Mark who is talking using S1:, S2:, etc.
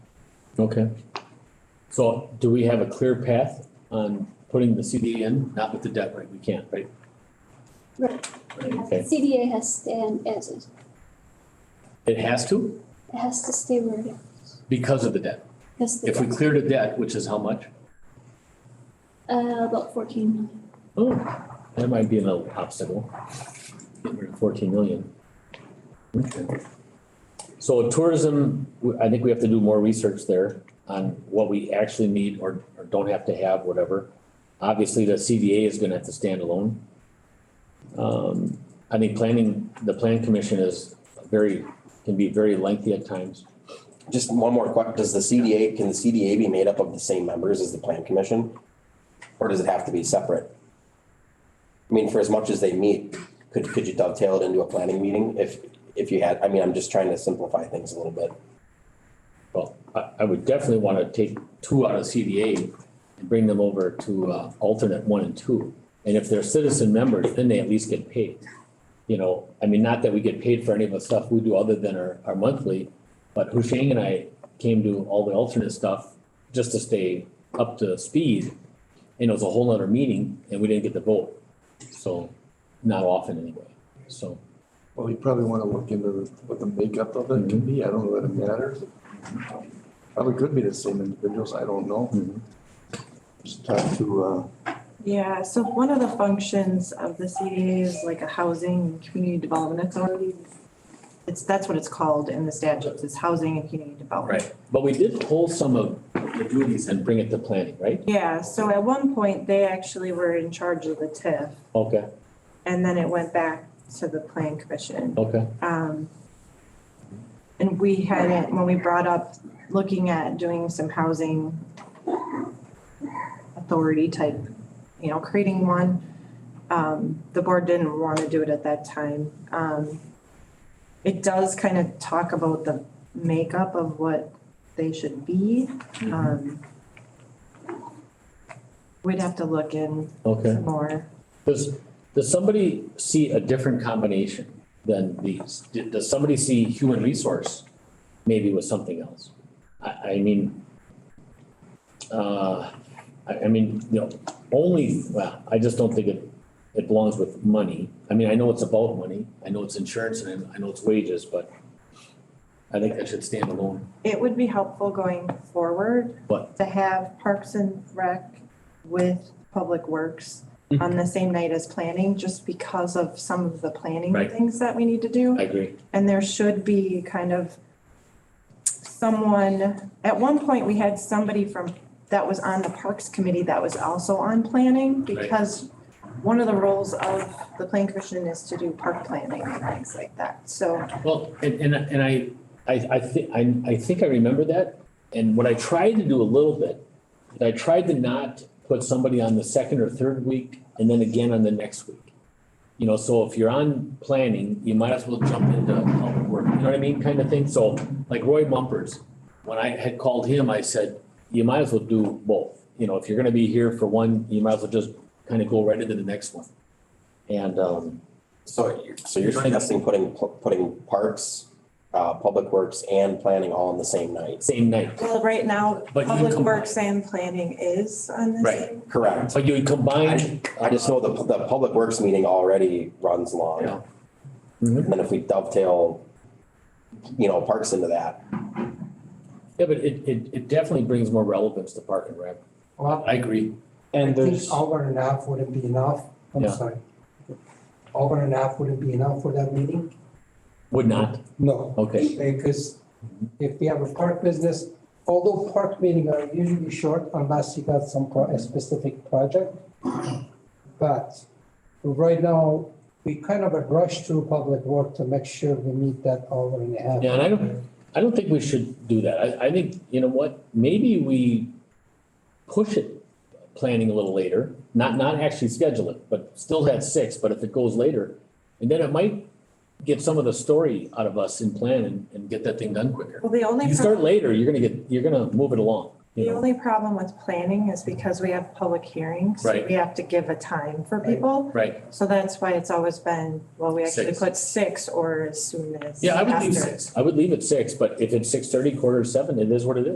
S1: Okay. So do we have a clear path on putting the CD in, not with the debt, right? We can't, right?
S2: Right.
S1: Right, okay.
S2: CDA has stand as it,
S1: It has to
S2: it has to stay where it is.
S1: because of the debt.
S2: That's the
S1: If we
S2: debt.
S1: clear the debt, which is how much?
S2: Uh, about fourteen million.
S1: Oh, that might be an obstacle. Get rid of Fourteen million. Okay. So tourism, w- I think we have to do more research there on what we actually need or, or don't have to have, whatever. Obviously, the CDA is gonna have to stand alone. Um, I think planning, the plan commission is very, can be very lengthy at times.
S3: Just one more question, does the CDA, can the CDA be made up of the same members as the plan commission? Or does it have to be separate? I mean, for as much as they meet, could, could you dovetail it into a planning meeting if, if you had, I mean, I'm just trying to simplify things a little bit.
S1: Well, I, I would definitely wanna take two out of CDA and bring them over to, uh, alternate one and two. And if they're citizen members, then they at least get paid. You know, I mean, not that we get paid for any of the stuff we do other than our, our monthly, but Husheng and I came to all the alternate stuff just to stay up to speed. And it was a whole other meeting and we didn't get the vote, so not often anyway, so.
S4: Well, you probably want to look into what the makeup of it can be. I don't know that it matters. Probably could be the same individuals. I don't know.
S1: Mm-hmm.
S4: Just talk to, uh,
S5: Yeah, so one of the functions of the CDA is like a housing and community development authority. It's, that's what it's called in the statutes, is housing and community development.
S1: Right, but we did pull some of the duties and bring it to planning, right?
S5: Yeah, so at one point, they actually were in charge of the TIF,
S1: Okay,
S5: and then it went back to the plan commission.
S1: okay.
S5: Um, and we had it, when we brought up looking at doing some housing authority type, you know, creating one, um, the board didn't want to do it at that time. Um, it does kind of talk about the makeup of what they should be. Um, we'd have to look in
S1: Okay,
S5: some more.
S1: does, does somebody see a different combination than these? D- Does somebody see human resource maybe with something else? I, I mean, uh, I, I mean, you know, only, well, I just don't think it, it belongs with money. I mean, I know it's about money, I know it's insurance and I know it's wages, but I think that should stand alone.
S5: It would be helpful going forward.
S1: What?
S5: To have Parks and Rec with Public Works
S1: Mm-hmm.
S5: on the same night as planning, just because of some of the planning
S1: Right.
S5: things that we need to do.
S1: I agree.
S5: And there should be kind of someone, at one point, we had somebody from, that was on the Parks Committee that was also on planning,
S1: Right.
S5: because one of the roles of the Plan Commission is to do park planning and things like that, so.
S1: Well, and, and, and I, I, I think, I, I think I remember that, and what I tried to do a little bit, is I tried to not put somebody on the second or third week, and then again on the next week. You know, so if you're on planning, you might as well jump into public work, you know what I mean, kind of thing, so, like Roy Mumpers, when I had called him, I said, you might as well do both, you know, if you're gonna be here for one, you might as well just kind of go right into the next one. And, um,
S3: So, you're- so you're suggesting putting, putting parks, uh, public works and planning all in the same night?
S1: same night,
S5: Well, right now,
S1: but you
S5: Public
S1: combine-
S5: Works and Planning is on the
S1: Right.
S5: same.
S3: Correct.
S1: So you combine.
S3: I just know the, the public works meeting already runs
S1: Yeah.
S3: long.
S1: Mhm.
S3: And then if we dovetail, you know, parks into that,
S1: Yeah, but it, it, it definitely brings more relevance to Park and Rec.
S6: Well,
S1: I agree.
S6: I
S7: And
S6: think
S7: there's,
S6: hour and a half wouldn't be enough, I'm
S1: Yeah.
S6: sorry. Hour and a half wouldn't be enough for that meeting?
S1: Would not,
S6: No,
S1: okay,
S6: because if we have a park business, although park meetings are usually short unless you got some, pro- a specific project. But right now, we kind of rush through public work to make sure we meet that hour and a half.
S1: Yeah, and I don't- I don't think we should do that, I, I think, you know what, maybe we push it, planning a little later, not, not actually schedule it, but still at six, but if it goes later, and then it might get some of the story out of us in plan and, and get that thing done quicker.
S5: Well, the only,
S1: You
S5: pro-
S1: start later, you're gonna get, you're gonna move it along, you
S5: the
S1: know,
S5: only problem with planning is because we have public hearings. so
S1: Right.
S5: We have to give a time for people.
S1: right?
S5: So that's why it's always been, well, we actually
S1: Six.
S5: put six or as soon as.
S1: Yeah, I would leave
S5: after.
S1: six, I would leave it six, but if it's six thirty, quarter to seven, it is what it is.